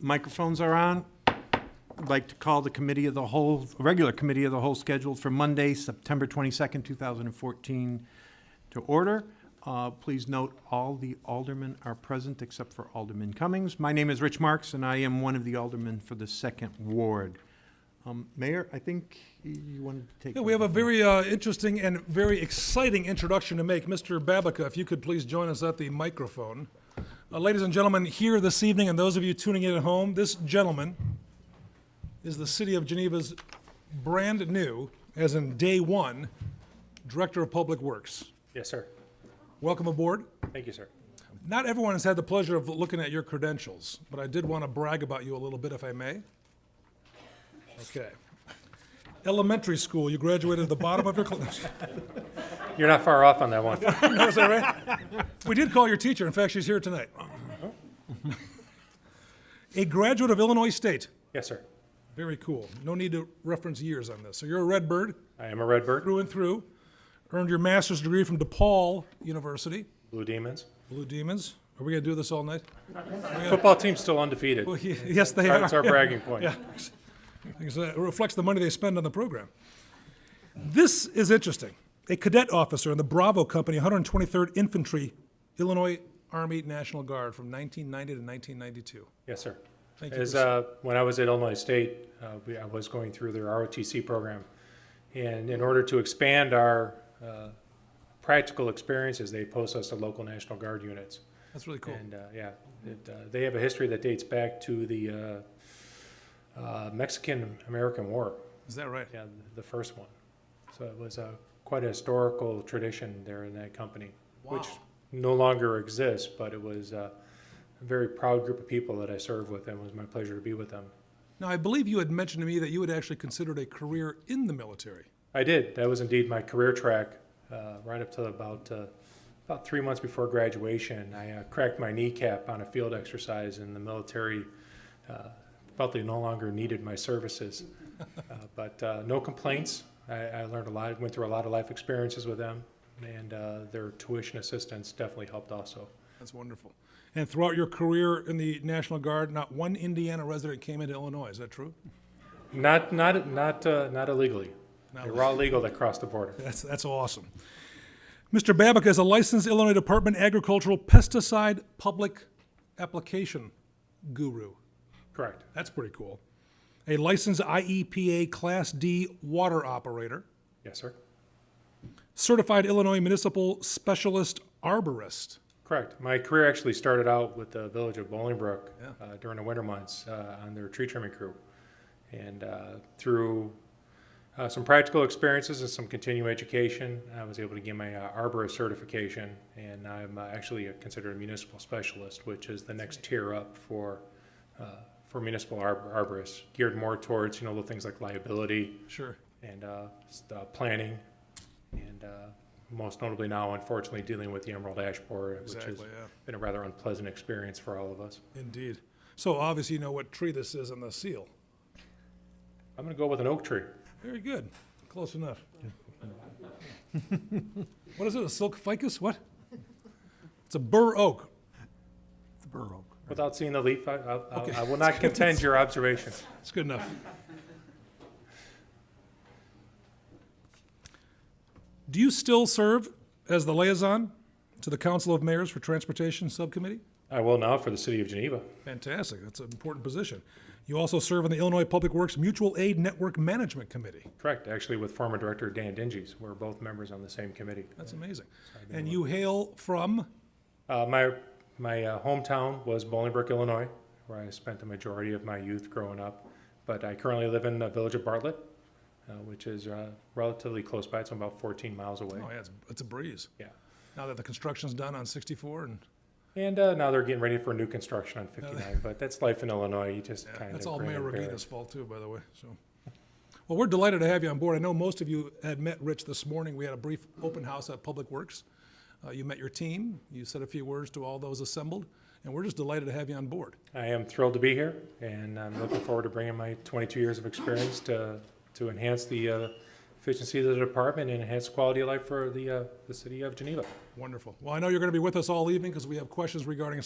Microphones are on. I'd like to call the committee of the whole, regular committee of the whole scheduled for Monday, September 22nd, 2014, to order. Uh, Please note, all the aldermen are present except for Alderman Cummings. My name is Rich Marks, and I am one of the aldermen for the Second Ward. Um, Mayor, I think you wanted to take. Yeah, we have a very uh, interesting and very exciting introduction to make. Mr. Babica, if you could please join us at the microphone. Uh, Ladies and gentlemen, here this evening, and those of you tuning in at home, this gentleman is the City of Geneva's brand-new, as in day one, Director of Public Works. Yes, sir. Welcome aboard. Thank you, sir. Not everyone has had the pleasure of looking at your credentials, but I did want to brag about you a little bit, if I may. Okay. Elementary school, you graduated at the bottom of your class. You're not far off on that one. Is that right? We did call your teacher. In fact, she's here tonight. A graduate of Illinois State. Yes, sir. Very cool. No need to reference years on this. So you're a Redbird I am a Redbird, through and through. Earned your master's degree from DePaul University. Blue Demons. Blue Demons. Are we going to do this all night? Football team's still undefeated. Well, ye- Yes, they are. That's our bragging point. Yeah. Because It reflects the money they spend on the program. This is interesting. A cadet officer in the Bravo Company, 123rd Infantry, Illinois Army National Guard from 1990 to 1992. Yes, sir. Thank you. As, for- uh, when I was at Illinois State, uh, we, I was going through their ROTC program. And in order to expand our, uh, practical experiences, they post us to local National Guard units. That's really cool. And, uh, yeah, it, uh, they have a history that dates back to the, uh, uh, Mexican-American War. Is that right? Yeah, uh, the first one. So it was a, quite a historical tradition there in that company, which Wow. no longer exists, but it was uh, a very proud group of people that I served with, and it was my pleasure to be with them. Now, I believe you had mentioned to me that you had actually considered a career in the military. I did. That was indeed my career track, uh, right up to about uh, about three months before graduation. I uh, cracked my kneecap on a field exercise, and the military uh, felt they no longer needed my services. Uh, but uh, no complaints. I, I learned a lot. Went through a lot of life experiences with them, and uh, their tuition assistance definitely helped also. That's wonderful. And throughout your career in the National Guard, not one Indiana resident came into Illinois. Is that true? Not not not uh, not illegally. they were all legal that crossed the border. That's, that's awesome. Mr. Babica is a licensed Illinois Department Agricultural Pesticide Public Application Guru. Correct. That's pretty cool. A licensed IEPA Class D water operator, Yes, sir. certified Illinois Municipal Specialist Arborist. Correct. My career actually started out with the village of Bolingbrook Yeah. uh, during the winter months uh, on their tree trimming crew. And uh, through uh, some practical experiences and some continuing education, I was able to get my uh, arborist certification. And I'm uh, actually considered a municipal specialist, which is the next tier up for uh, for municipal arbor- arborists, geared more towards you know the things like liability, Sure. and uh, s- uh, planning, and uh, most notably now, unfortunately, dealing with the Emerald Ash Borer, which has Exactly, yeah. been a rather unpleasant experience for all of us. Indeed. So obviously you know what tree this is on the seal. I'm going to go with an oak tree. Very good. Close enough. what is it, a silk ficus? What? It's a bur oak. Borough. Without seeing the leaf, I, I, Okay. I will not contend your observation. It's good enough. Do you still serve as the liaison to the Council of Mayors for Transportation Subcommittee? I will now for the city of Geneva. Fantastic, that's an important position. You also serve on the Illinois Public Works Mutual Aid Network Management Committee. Correct, actually with former director Dan Dinges. We're both members on the same committee. That's amazing. And you hail from, Uh, my my uh, hometown was Bolingbrook, Illinois, where I spent the majority of my youth growing up. But I currently live in the village of Bartlett, uh, which is uh, relatively close by. It's about 14 miles away. oh yeah, it's, it's a breeze. Yeah. Now that the construction's done on 64 and And uh, now they're getting ready for new construction on 59. but that's life in Illinois. You just kind of That's all grin Mayor and bear it. Regina's fault too, by the way, so. Well, we're delighted to have you on board. I know most of you had met Rich this morning. We had a brief open house at Public Works. Uh, you met your team, you said a few words to all those assembled, and we're just delighted to have you on board. I am thrilled to be here, and I'm looking forward to bringing my 22 years of experience to to enhance the uh, efficiency of the department and enhance quality of life for the uh, the city of Geneva. Wonderful. Well, I know you're going to be with us all evening because we have questions regarding